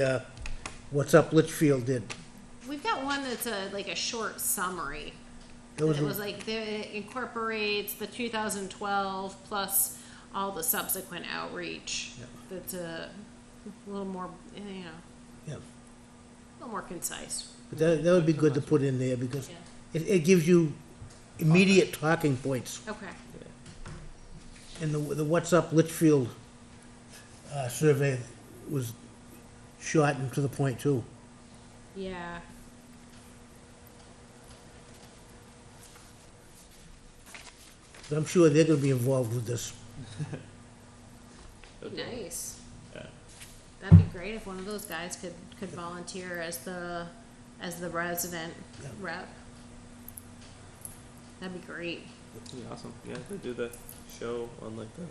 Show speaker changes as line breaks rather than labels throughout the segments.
uh, What's Up Litchfield did.
We've got one that's a, like a short summary.
That was
It was like, there- it incorporates the two thousand twelve plus all the subsequent outreach.
Yep.
That's a little more, eh, you know,
Yeah,
a little more concise.
But that, that would be good to put in there because
Yeah.
it, it gives you immediate talking points.
Okay,
And the, the What's Up Litchfield, uh, survey was short and to the point too.
yeah.
But I'm sure they're gonna be involved with this.
Nice.
Yeah.
That'd be great if one of those guys could, could volunteer as the, as the resident
Yeah.
rep. That'd be great.
That'd be awesome. Yeah, they do the show on like the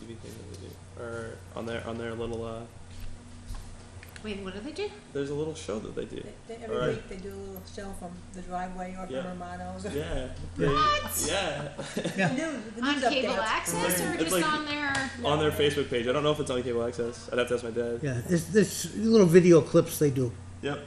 TV thing that they do, or on their on their little. uh
Wait, what do they do?
There's a little show that they do.
They- they- Every
Alright.
week they do a little show from the driveway or
Yeah.
from Romano's. The
Yeah. They,
What?
Yeah.
news, the
On
news
cable
updates.
access or
It's
just
like-
on their?
on their Facebook page. I don't know if it's on cable access. I'd have to ask my dad.
Yeah, it's, this little video clips they do.
Yep.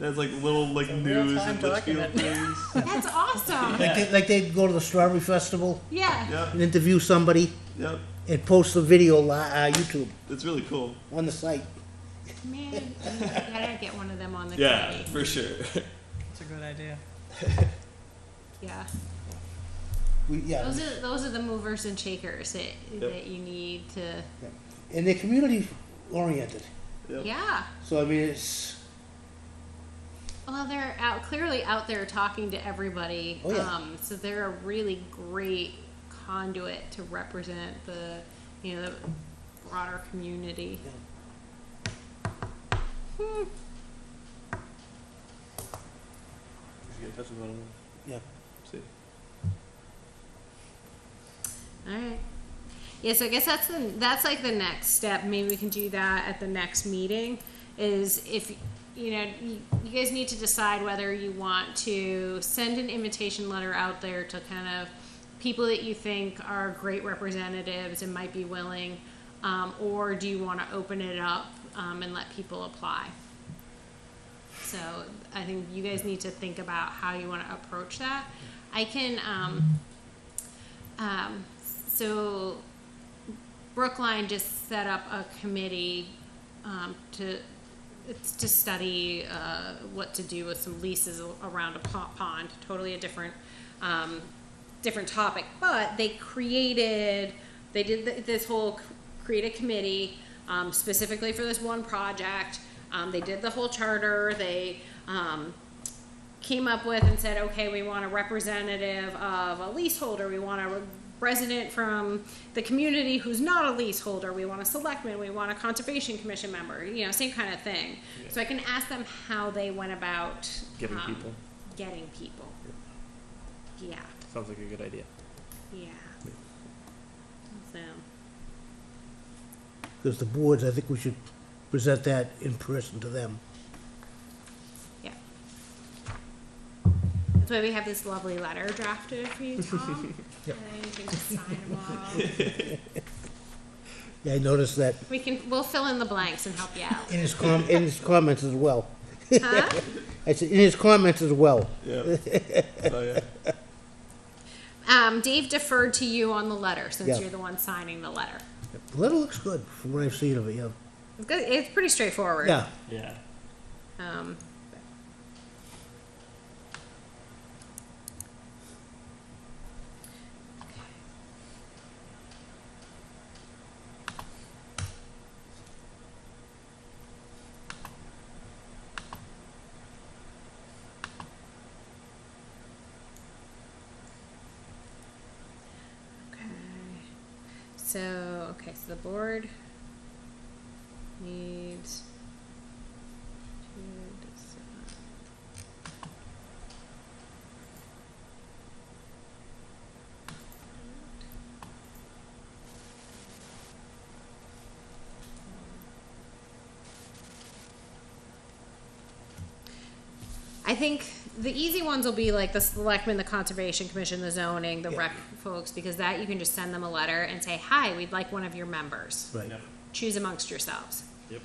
There's like little like
a
news
real-time
and Litchfield
document.
things.
That's awesome.
Like, they- like they go to the Strawberry Festival
Yeah.
yep.
and interview somebody
Yep.
and post the video li- uh, YouTube
It's really cool.
on the site.
Man, I gotta get one of them on the
Yeah,
committee.
for sure.
That's a good idea.
Yeah.
We, yeah,
Those are those are the movers and shakers that that you need to
and they're community oriented.
Yep.
Yeah.
So I mean, it's
Well, they're out clearly out there talking to everybody.
Oh, yeah.
Um so they're a really great conduit to represent the you know the broader community. Hmm.
We should get in touch with one of them.
Yep.
See.
All right. Yeah, so I guess that's the that's like the next step. Maybe we can do that at the next meeting. Is if you know you, you guys need to decide whether you want to send an invitation letter out there to kind of people that you think are great representatives and might be willing, um, or do you want to open it up um, and let people apply? So I think you guys need to think about how you want to approach that. I can. Um, um, so Brookline just set up a committee um, to it's to study uh, what to do with some leases a- around a po- pond. Totally a different um, different topic, but they created they did th- this whole c- create a committee um, specifically for this one project. Um, they did the whole charter. They um, came up with and said, okay, we want a representative of a leaseholder, we want a resident from the community who's not a leaseholder, we want a selectman, we want a conservation commission member, you know, same kind of thing. So I can ask them how they went about
Getting
um,
people.
Getting people. Yeah,
Sounds like a good idea.
yeah. So,
because the boards. I think we should present that in person to them.
yeah. That's why we have this lovely letter drafted for you, Tom.
Yep.
And you can just sign them all.
Yeah, I noticed that
We can, we'll fill in the blanks and help you out.
in his com- in his comments as well.
Huh?
I said in his comments as well.
Yeah. oh yeah.
Um, Dave deferred to you on the letter since
Yeah.
you're the one signing the letter.
The letter looks good from what I've seen of it. Yeah,
It's, good. it's pretty straightforward.
yeah.
Yeah.
Um, okay. So, okay, so the board needs to decide. I think the easy ones will be like the selectmen, the conservation commission, the zoning, the
Yeah.
rec folks, because that you can just send them a letter and say, hi, we'd like one of your members
Right.
Yep.
choose amongst yourselves.
Yep.